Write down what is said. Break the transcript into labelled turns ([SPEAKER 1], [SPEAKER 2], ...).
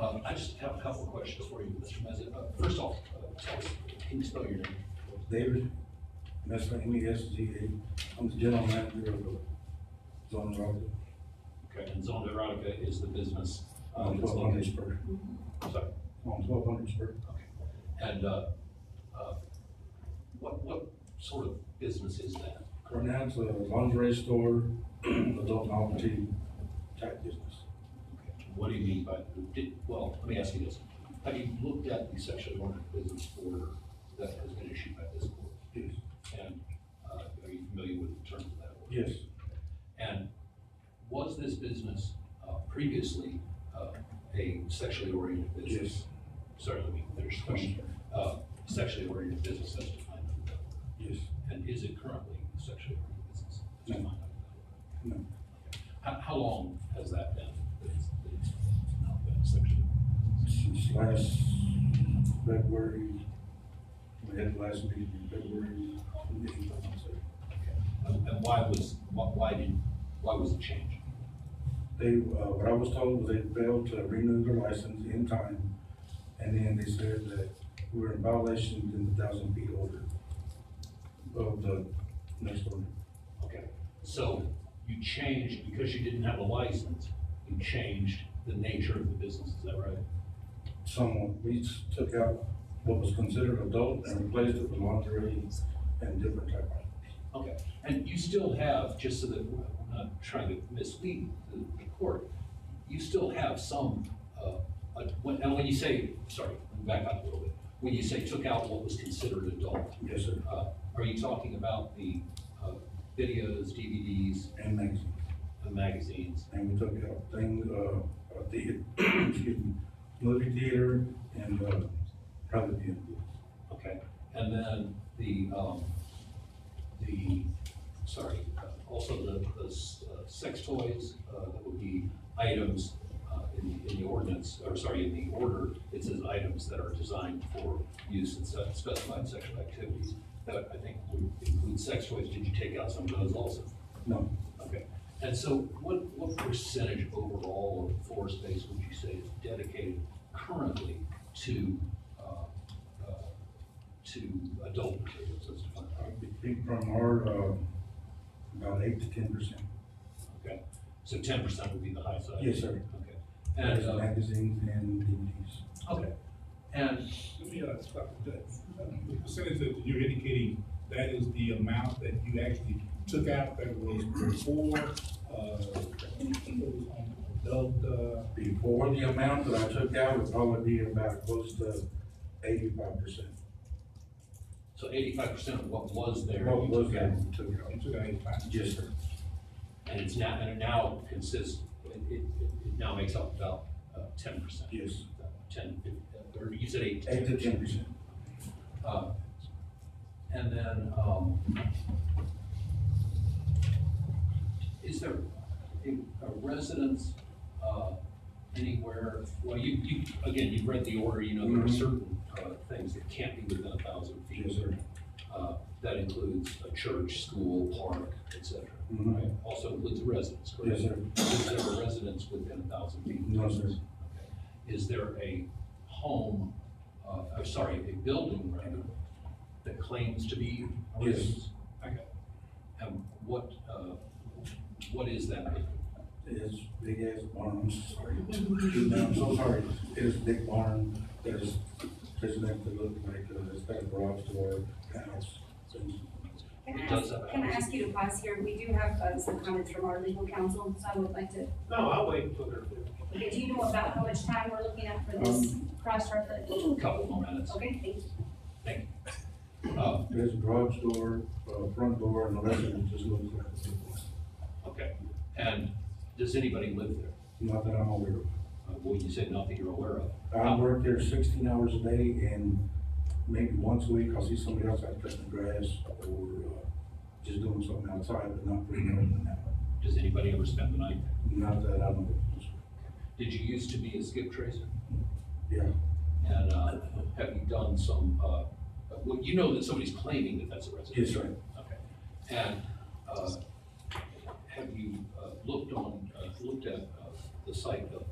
[SPEAKER 1] Um, I just have a couple of questions for you, Mr. Mezza. Uh, First off, uh, tell us, can you spell your name?
[SPEAKER 2] David, Messman, M E S G A, I'm the general manager of the Zone Road.
[SPEAKER 1] Okay, and Zone Erotica is the business. um,
[SPEAKER 2] On
[SPEAKER 1] that's
[SPEAKER 2] twelve hundred
[SPEAKER 1] located-
[SPEAKER 2] spur,
[SPEAKER 1] I'm Sorry,
[SPEAKER 2] Oh, on twelve hundred spur.
[SPEAKER 1] okay. And, uh, uh, what, what sort of business is that?
[SPEAKER 2] Right now, it's a lingerie store, adult novelty type business.
[SPEAKER 1] What do you mean by, did, well, let me ask you this. Have you looked at the section one business order that has been issued by this court?
[SPEAKER 2] Yes,
[SPEAKER 1] And, uh, are you familiar with the terms of that order?
[SPEAKER 2] yes,
[SPEAKER 1] And was this business uh, previously uh, a sexually oriented business?
[SPEAKER 2] Yes.
[SPEAKER 1] Sorry, let me finish the question. Uh, Sexually oriented business as defined under that law.
[SPEAKER 2] yes,
[SPEAKER 1] And is it currently a sexually oriented business? as
[SPEAKER 2] No.
[SPEAKER 1] defined under that
[SPEAKER 2] no,
[SPEAKER 1] law? How, how long has that been? that it's- that it's not been a sexually oriented business?
[SPEAKER 2] since last February, we had the last meeting in February. I'm sorry.
[SPEAKER 1] And and why was, why- why did, why was it changed?
[SPEAKER 2] They, uh, what I was told was they failed to renew their license in time, and then they said that we were in violation in the thousand feet order of the next order.
[SPEAKER 1] Okay, so you changed, because you didn't have a license, you changed the nature of the business, is that right?
[SPEAKER 2] Someone, we took out what was considered adult and replaced it with lingerie and different type of.
[SPEAKER 1] Okay, and you still have, just so that we're not trying to mislead the the court, you still have some, uh, uh, when- and when you say, sorry, back up a little bit, when you say took out what was considered adult,
[SPEAKER 2] Yes, sir.
[SPEAKER 1] uh, are you talking about the uh, videos, DVDs,
[SPEAKER 2] And magazines.
[SPEAKER 1] and magazines?
[SPEAKER 2] And we took out things, uh, uh, the, excuse me, movie theater and, uh, private view.
[SPEAKER 1] Okay, and then the, um, the, sorry, uh, also the, the s- uh, sex toys, uh, that would be items, uh, in, in the ordinance, or sorry, in the order, it says items that are designed for use in se- specified sexual activities. That I think would include sex toys, did you take out some of those also?
[SPEAKER 2] No,
[SPEAKER 1] Okay, and so what, what percentage overall of floor space would you say is dedicated currently to, uh, uh, to adult materials as defined?
[SPEAKER 2] I think from our, uh, about eight to ten percent.
[SPEAKER 1] Okay, so ten percent would be the high side?
[SPEAKER 2] Yes, sir.
[SPEAKER 1] Okay, and, uh,
[SPEAKER 2] Magazines and DVDs.
[SPEAKER 1] okay, and
[SPEAKER 3] Let me, uh, stop with that. The percentage that you're indicating, that is the amount that you actually took out that was before, uh, adult, uh,
[SPEAKER 2] Before the amount that I took out would probably be about close to eighty-five percent.
[SPEAKER 1] so eighty-five percent of what was there?
[SPEAKER 2] What
[SPEAKER 1] you took
[SPEAKER 2] was that
[SPEAKER 1] out,
[SPEAKER 2] we took out?
[SPEAKER 3] you took out eighty-five.
[SPEAKER 2] Yes, sir.
[SPEAKER 1] And it's now, and it now consists, it, it, it now makes up about, uh, ten percent?
[SPEAKER 2] Yes.
[SPEAKER 1] Ten, or you said eight?
[SPEAKER 2] Eight to ten percent.
[SPEAKER 1] Uh, And then, um, is there a a residence, uh, anywhere, well, you, you, again, you've read the order, you know, there are
[SPEAKER 2] Mhm.
[SPEAKER 1] certain, uh, things that can't be within a thousand feet.
[SPEAKER 2] Yes, sir.
[SPEAKER 1] Uh, that includes a church, school, park, et cetera,
[SPEAKER 2] Mhm.
[SPEAKER 1] right? Also includes a residence, correct?
[SPEAKER 2] Yes, sir.
[SPEAKER 1] Is there a residence within a thousand feet?
[SPEAKER 2] No, sir.
[SPEAKER 1] Is there a home, uh, I'm sorry, a building rather, that claims to be a
[SPEAKER 2] Yes.
[SPEAKER 1] residence? Okay. And what, uh, what is that?
[SPEAKER 2] It's big ass barn, I'm sorry. Dude, I'm so sorry. It is a big barn that is, doesn't have to look like, uh, it's got a garage door, house. things.
[SPEAKER 4] Can
[SPEAKER 1] It
[SPEAKER 4] I
[SPEAKER 1] does
[SPEAKER 4] ask,
[SPEAKER 1] have
[SPEAKER 4] can I
[SPEAKER 1] hours.
[SPEAKER 4] ask you to pause here? We do have uh, some comments from our legal counsel, so I would like to,
[SPEAKER 5] No, I'll wait until they're through.
[SPEAKER 4] okay, do you know about how much time we're looking at for this cross-reference?
[SPEAKER 1] Couple more minutes.
[SPEAKER 4] Okay, thank you.
[SPEAKER 1] Uh,
[SPEAKER 2] There's a garage door, uh, front door, and the rest of it just looks like a big house.
[SPEAKER 1] Okay, and does anybody live there?
[SPEAKER 2] Not that I'm aware of.
[SPEAKER 1] Uh, Well, you said not that you're aware of.
[SPEAKER 2] I work there sixteen hours a day and maybe once a week I'll see somebody else out cutting the grass or, uh, just doing something outside, but not pretty much than that.
[SPEAKER 1] Does anybody ever spend the night? there?
[SPEAKER 2] Not that I know of.
[SPEAKER 1] Did you used to be a skip tracer?
[SPEAKER 2] Yeah,
[SPEAKER 1] And uh, have you done some, uh, well, you know that somebody's claiming that that's a residence?
[SPEAKER 2] Yes, sir.
[SPEAKER 1] Okay. And uh, have you uh, looked on, uh, looked at uh, the site of